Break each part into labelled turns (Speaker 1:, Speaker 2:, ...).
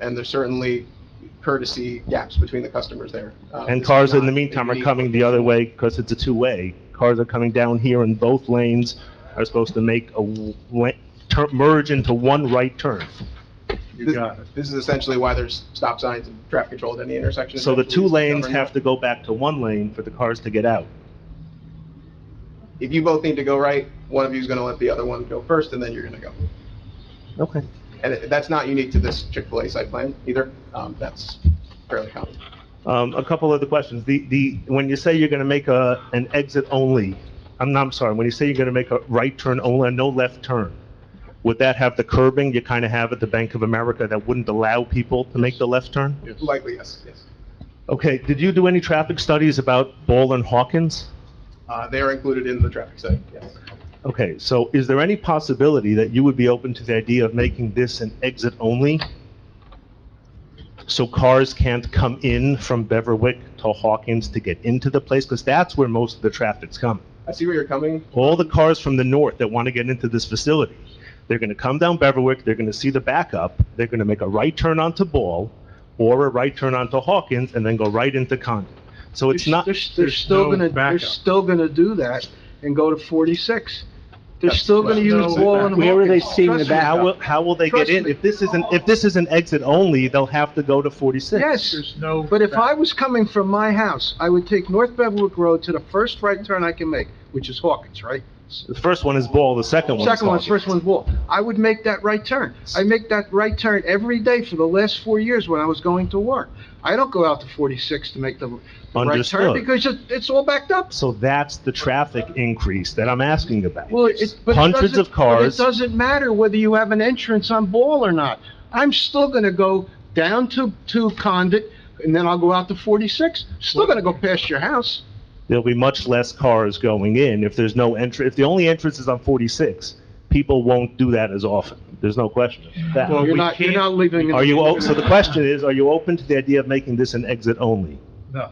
Speaker 1: and there's certainly courtesy gaps between the customers there. Um,
Speaker 2: And
Speaker 1: this
Speaker 2: cars
Speaker 1: is
Speaker 2: in the
Speaker 1: not
Speaker 2: meantime
Speaker 1: a
Speaker 2: are
Speaker 1: unique-
Speaker 2: coming the other way because it's a two-way. Cars are coming down here and both lanes are supposed to make a w- la- tur- merge into one right turn.
Speaker 1: This- This is essentially why there's stop signs and traffic control at any intersection.
Speaker 2: So the two
Speaker 1: Essentially,
Speaker 2: lanes
Speaker 1: govern-
Speaker 2: have to go back to one lane for the cars to get out.
Speaker 1: If you both need to go right, one of you is going to let the other one go first, and then you're going to go.
Speaker 2: Okay.
Speaker 1: And it- that's not unique to this Chick-fil-A site plan either. Um, That's fairly common.
Speaker 2: Um, a couple other questions. The, the, when you say you're gonna make a, an exit only, I'm, I'm sorry, when you say you're gonna make a right turn only, no left turn, would that have the curbing you kinda have at the Bank of America that wouldn't allow people to make the left turn?
Speaker 1: Likely, yes, yes.
Speaker 2: Okay, did you do any traffic studies about Ball and Hawkins?
Speaker 1: Uh, They are included in the traffic study, yes.
Speaker 2: Okay, so is there any possibility that you would be open to the idea of making this an exit only? So cars can't come in from Beverwick to Hawkins to get into the place, because that's where most of the traffic's coming.
Speaker 1: I see where you're coming.
Speaker 2: All the cars from the north that want to get into this facility, they're gonna come down Beverwick, they're gonna see the backup, they're gonna make a right turn onto Ball, or a right turn onto Hawkins, and then go right into Condon. So it's
Speaker 3: They're-
Speaker 2: not.
Speaker 3: They're, they're
Speaker 4: there's
Speaker 3: still
Speaker 4: no
Speaker 3: gonna, they're
Speaker 4: backup.
Speaker 3: still gonna do that and go to forty-six. They're still gonna
Speaker 1: There's
Speaker 3: use
Speaker 1: no
Speaker 3: Wall and
Speaker 4: backup.
Speaker 3: Hawkins.
Speaker 5: Where are they seeing the
Speaker 3: Trust me.
Speaker 5: back-
Speaker 2: How will, how will they get
Speaker 3: Trust
Speaker 2: in?
Speaker 3: me.
Speaker 2: If this isn't, if this is an exit only, they'll have to go to 46.
Speaker 3: Yes,
Speaker 4: There's no.
Speaker 3: but if I was coming from my house, I would take North Beverwick Road to the first right turn I can make, which is Hawkins, right?
Speaker 2: The first one is Ball, the second one is
Speaker 3: Second one's,
Speaker 2: Hawkins.
Speaker 3: first one's Wall. I would make that right turn. I make that right turn every day for the last four years when I was going to work. I don't go out to forty-six to make the the right turn
Speaker 2: Understood.
Speaker 3: because it- it's all backed up.
Speaker 2: So that's the traffic increase that I'm asking about.
Speaker 3: Well, it, but it
Speaker 2: Hundreds
Speaker 3: doesn't-
Speaker 2: of cars.
Speaker 3: But it doesn't matter whether you have an entrance on Ball or not. I'm still gonna go down to, to Condit, and then I'll go out to 46. Still gonna go past your house.
Speaker 2: There'll be much less cars going in if there's no entry, if the only entrance is on 46. People won't do that as often. There's no question of that.
Speaker 4: Well,
Speaker 3: You're
Speaker 4: we
Speaker 3: not, you're
Speaker 4: can't-
Speaker 3: not leaving. in-
Speaker 2: Are you, o- so the question is, are you open to the idea of making this an exit only?
Speaker 4: No.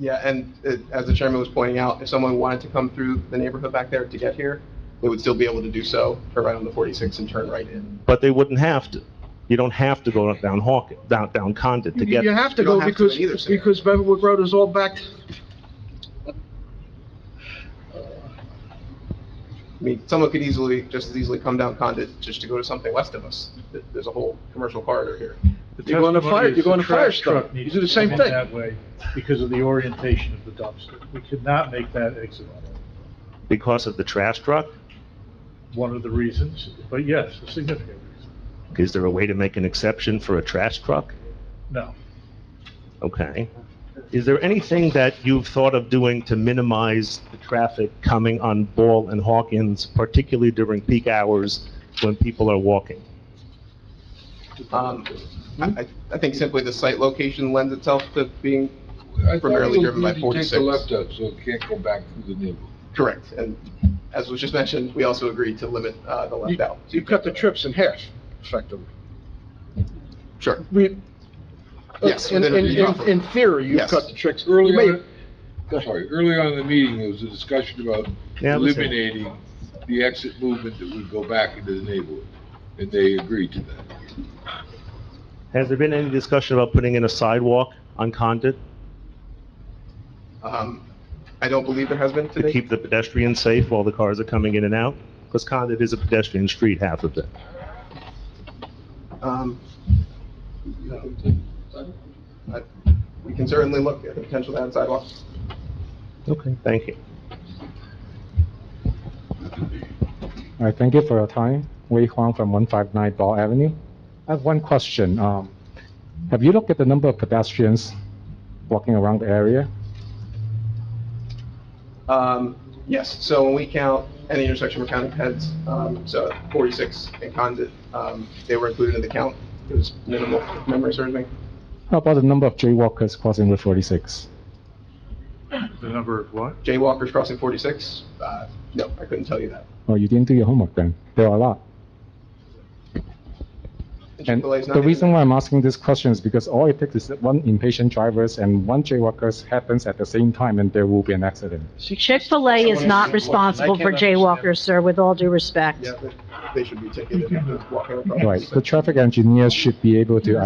Speaker 1: Yeah, and uh, as the chairman was pointing out, if someone wanted to come through the neighborhood back there to get here, they would still be able to do so, turn right on the 46 and turn right in.
Speaker 2: But they wouldn't have to. You don't have to go down Hawkins, down, down Condit to
Speaker 3: You
Speaker 2: get
Speaker 3: you have to
Speaker 1: You don't
Speaker 3: go
Speaker 1: have to
Speaker 3: because,
Speaker 1: in either scenario.
Speaker 3: because Beverwood Road is all backed.
Speaker 1: I mean, someone could easily, just as easily come down Condit just to go to something west of us. Th- There's a whole commercial corridor here.
Speaker 4: The
Speaker 3: You're going to
Speaker 4: testimony
Speaker 3: fire-
Speaker 4: is
Speaker 3: you're going
Speaker 4: the
Speaker 3: to fire
Speaker 4: trash
Speaker 3: stop.
Speaker 4: truck needs
Speaker 3: You do the
Speaker 4: to
Speaker 3: same
Speaker 4: come in
Speaker 3: thing.
Speaker 4: That way, because of the orientation of the dumpster. We could not make that exit.
Speaker 2: because of the trash truck?
Speaker 4: One of the reasons, but yes, a significant reason.
Speaker 2: Is there a way to make an exception for a trash truck?
Speaker 4: No.
Speaker 2: Okay. Is there anything that you've thought of doing to minimize the traffic coming on Ball and Hawkins, particularly during peak hours when people are walking?
Speaker 1: Um, I, I- I think simply the site location lends itself to being primarily driven by
Speaker 6: Take the
Speaker 1: 46.
Speaker 6: left out, so it can't go back through the neighborhood.
Speaker 1: Correct, and as was just mentioned, we also agreed to limit uh, the left out.
Speaker 3: You cut the trips in half, effectively.
Speaker 1: Sure,
Speaker 3: We-
Speaker 1: Yes,
Speaker 3: In,
Speaker 1: within
Speaker 3: in,
Speaker 1: a-
Speaker 3: in in theory, you
Speaker 1: Yes.
Speaker 3: cut the trips. You may-
Speaker 6: Early
Speaker 3: Go
Speaker 6: on,
Speaker 3: ahead.
Speaker 6: sorry, early on in the meeting, there was a discussion about
Speaker 2: Yeah, listen.
Speaker 6: eliminating the exit movement that would go back into the neighborhood, and they agreed to that.
Speaker 2: Has there been any discussion about putting in a sidewalk on Condit
Speaker 1: Um, I don't believe there has been
Speaker 2: to
Speaker 1: today.
Speaker 2: keep the pedestrians safe while the cars are coming in and out? Because Condit is a pedestrian street half of it.
Speaker 1: Um, I- We can certainly look at the potential to add sidewalks.
Speaker 2: Okay, thank you.
Speaker 7: All right, thank you for your time. Wei Huang from 159 Ball Avenue. I have one question. Um, Have you looked at the number of pedestrians walking around the area?
Speaker 1: Um, yes, so when we count any intersection we're counting heads, um, so 46 in Condit, um, they were included in the count. It was minimal, if memory serves me.
Speaker 7: How about the number of jaywalkers crossing Route 46?
Speaker 4: The number of what?
Speaker 1: Jaywalkers crossing 46, uh, no, I couldn't tell you that.
Speaker 7: Oh, you didn't do your homework then. There are a lot. And
Speaker 1: Chick-fil-A's not
Speaker 7: the
Speaker 1: even-
Speaker 7: reason why I'm asking this question is because all it takes is that one impatient drivers and one jaywalkers happens at the same time and there will be an accident.
Speaker 8: Chick-fil-A is not responsible for jaywalkers, sir, with all due respect.
Speaker 1: Yeah, but they should be ticketed if they're walking across.
Speaker 7: Right, the traffic engineers should be able to